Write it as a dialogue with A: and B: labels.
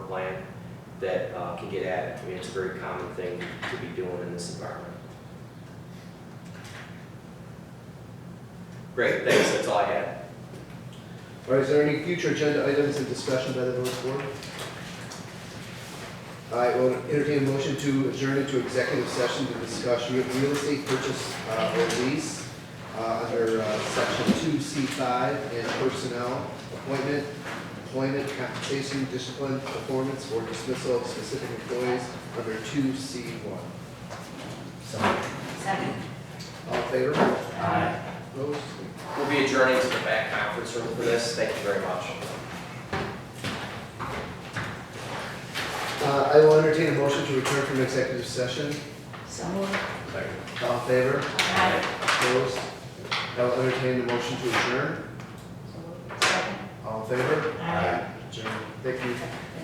A: plan that uh, can get added. I mean, it's a very common thing to be doing in this environment. Great, thanks, that's all I had.
B: All right, is there any future agenda items in discussion by the village board? I will entertain a motion to adjourn into executive session to discuss real real estate purchase uh, or lease uh, under uh, section two C five and personnel, appointment, employment, compensation, discipline, performance, or dismissal of specific employees under two C one.
C: Second.
B: All in favor? Aye. Opposed?
A: We'll be adjourning to the back conference room for this, thank you very much.
B: Uh, I will entertain a motion to return from executive session.
C: So moved.
B: All in favor?
C: Aye.
B: Opposed? I will entertain the motion to adjourn.
C: So moved. Second.
B: All in favor?
C: Aye.
B: Adjourn. Thank you.